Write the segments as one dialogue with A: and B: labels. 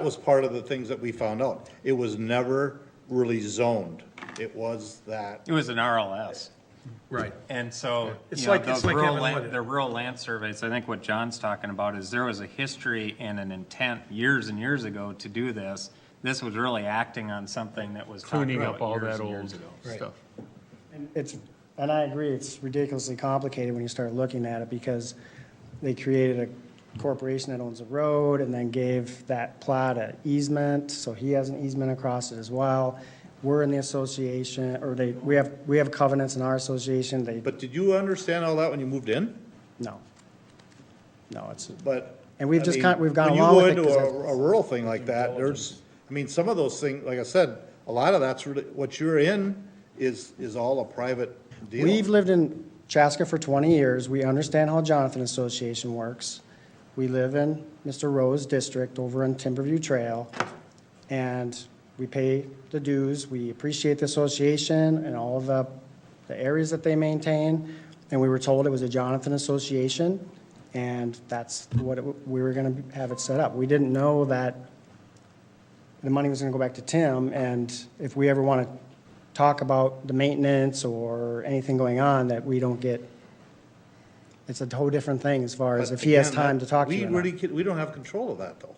A: That was part of the things that we found out. It was never really zoned. It was that,
B: It was an RLS.
C: Right.
B: And so,
C: It's
B: you know,
C: like- it's
B: the
C: like
B: rural,
C: having
B: la-
C: land.
B: the rural land surveys, I think what John's talking about is there was a history and an intent years and years ago to do this. This was really acting on something that was talked
D: Tuning up all
B: about years
D: that
B: and years
D: old
B: ago.
D: stuff.
E: It's, and I agree, it's ridiculously complicated when you start looking at it because they created a corporation that owns a road and then gave that plot an easement, so he has an easement across it as well. We're in the association, or they, we have, we have covenants in our association, they,
A: but did you understand all that when you moved in?
E: no. No, it's,
A: But.
E: And we've
A: I
E: just
A: mean,
E: kind- we've gone
A: when you
E: along
A: go
E: with it
A: into
E: 'cause
A: a- A rural thing like that, there's, I mean, some of those things, like I said, a lot of that's really, what you're in is, is all a private deal.
E: We've lived in Chaska for 20 years. We understand how Jonathan Association works. We live in Mr. Rose District over in Timberview Trail, and we pay the dues. We appreciate the association and all of the, the areas that they maintain. And we were told it was a Jonathan Association, and that's what it- we were going to have it set up. We didn't know that the money was gonna go back to Tim, and if we ever wanna talk about the maintenance or anything going on, that we don't get, it's a whole different thing as far as
A: But
E: if he has
A: again, that-
E: time to talk to you.
A: We
E: or not.
A: really, can- we don't have control of that, though.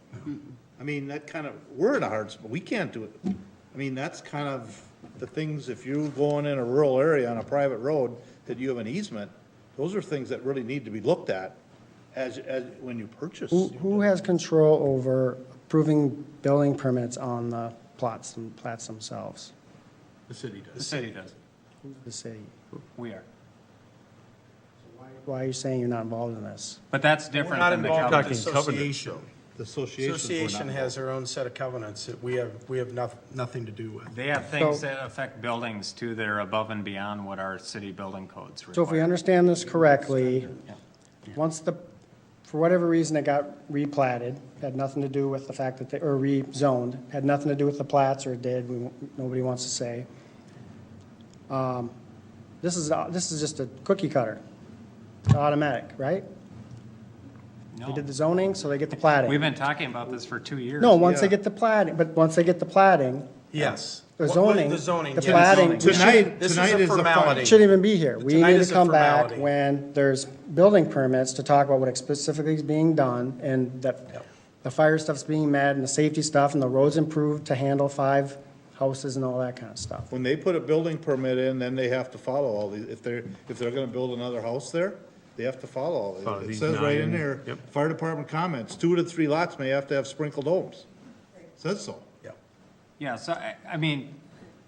A: I mean, that kind of, we're in a hard, spot. we can't do it. I mean, that's kind of the things, if you're going in a rural area on a private road that you have an easement, those are things that really need to be looked at as, as, when you purchase.
E: Who, who has control over approving building permits on the plots, and plats themselves?
C: The city does.
B: The city does.
E: The city.
B: We are.
E: Why are you saying you're not involved in this?
B: But that's
C: We're
B: different
C: not
B: than the
C: involved with
B: covenant.
C: the
D: Talking covenant.
C: association.
A: The associations were not
C: Association has
A: involved.
C: their own set of covenants that we have, we have noth- nothing to do with.
B: They have things that affect buildings too that are above and beyond what our city building codes
E: So if we
B: require.
E: understand this correctly, once the, for whatever reason, it got replatted, had nothing to do with the fact that they, or rezoned, had nothing to do with the plats, or it did, we, nobody wants to say. Um, This is, this is just a cookie cutter, It's automatic, right? They
B: No,
E: did the zoning, so they get the platting.
B: we've been talking about this for two years.
E: No, once they
A: yeah.
E: get the platting, but once they get the platting,
C: Yes.
E: The
C: What-
E: zoning,
C: The zoning.
E: the
C: yes.
E: plating.
C: We should-
A: Tonight-
C: This is
A: tonight
C: a
A: is the final.
C: formality.
E: It shouldn't even be here. We
C: Tonight
E: need
C: is
E: to
C: a
E: come back
C: formality.
E: when there's building permits to talk about what specifically is being done and that
C: Yep.
E: the fire stuff's being met and the safety stuff and the roads improved to handle five houses and all that kind of stuff.
A: When they put a building permit in, then they have to follow all these, if they're, if they're gonna build another house there, they have to follow all
D: Follow
A: these. It
D: these
A: says right in
D: nine,
A: there,
D: yep.
A: fire department comments, two to three lots may have to have sprinkled homes. Says so.
C: Yep.
B: Yeah, so I, I mean,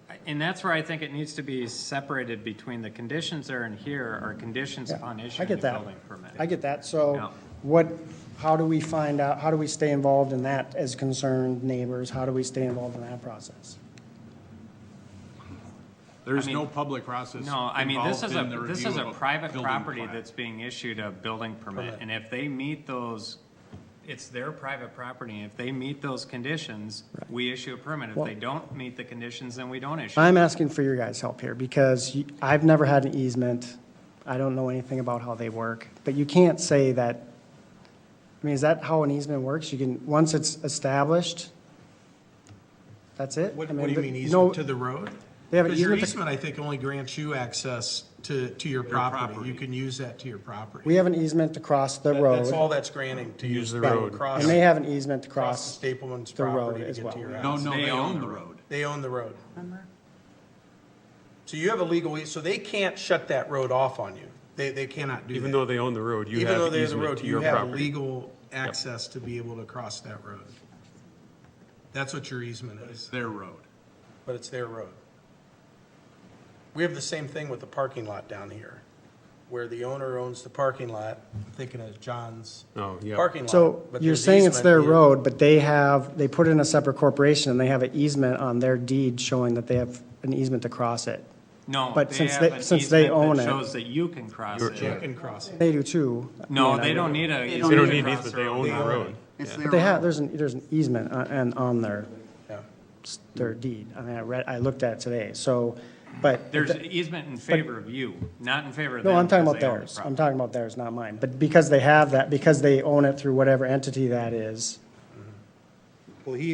B: I- and that's where I think it needs to be separated between the conditions there and here are conditions
E: Yeah,
B: upon
E: I
B: issuing the
E: get that.
B: building permit.
E: I get that.
B: Yeah.
E: So what, how do we find out, how do we stay involved in that as concerned neighbors? How do we stay involved in that process?
F: There is
B: I mean-
F: no public process.
B: No, I mean, this
F: involved
B: is
F: in the
B: a, this
F: review
B: is a
F: of
B: private
F: building
B: property
F: plat.
B: that's being issued a building permit, and if they meet those, it's their private property, and if they meet those conditions, we issue a permit. If they don't meet the conditions, then we don't issue.
E: I'm asking for your guys' help here because you- I've never had an easement. I don't know anything about how they work, but you can't say that, I mean, is that how an easement works? You can, once it's established, that's it?
C: What,
E: I
C: what do you
E: but
C: mean
E: no-
C: easement to the road?
E: They have an
C: Because your
E: easement to-
C: easement, I think, only grants you access to, to your property.
F: property.
C: You can use that to your property.
E: We have an easement to cross the
C: That's
E: road
C: all that's granting to use the
E: road.
C: Across,
E: and they have an easement to
C: across
E: cross.
C: Stapleman's
E: the road
C: property to
E: as
C: get
E: well.
C: to your house.
F: No, no, they own the road.
C: They own the road.
E: Uh-huh.
C: So you have a legal, eas- so they can't shut that road off on you. They, they cannot do that.
D: Even though they own the road, you
C: Even though
D: have
C: they have the
D: easement
C: road,
D: to
C: you
D: your
C: have
D: property.
C: legal access to be able to cross that road. That's what your easement
F: It's
C: is,
F: their road.
C: but it's their road. We have the same thing with the parking lot down here, where the owner owns the parking lot, I'm thinking of John's
D: Oh, yeah.
C: parking lot.
E: So
C: but
E: you're
C: there's
E: saying it's
C: easement
E: their
C: here.
E: road, but they have, they put in a separate corporation and they have an easement on their deed showing that they have an easement to cross it.
B: No,
E: But
B: they
E: since
B: have
E: they-
B: an
E: since they
B: easement
E: own
B: that
E: it-
B: shows that you can cross
C: You
B: it.
C: can cross it.
E: They do too.
B: No, they don't need a.
D: They don't
B: easement to
D: need
B: cross
D: easement,
B: their
D: they own the
C: own
D: road.
G: It's
E: But
G: their
E: they have,
G: road.
E: there's an, there's an easement on- and on their,
C: Yeah.
E: their deed. I mean, I read, I looked at it today, so, but.
B: There's an easement in favor of you, not in favor of them.
E: No, I'm talking
B: because
E: about
B: they own the
E: theirs. I'm
B: property.
E: talking about theirs, not mine. But because they have that, because they own it through whatever entity that is,
A: Well, he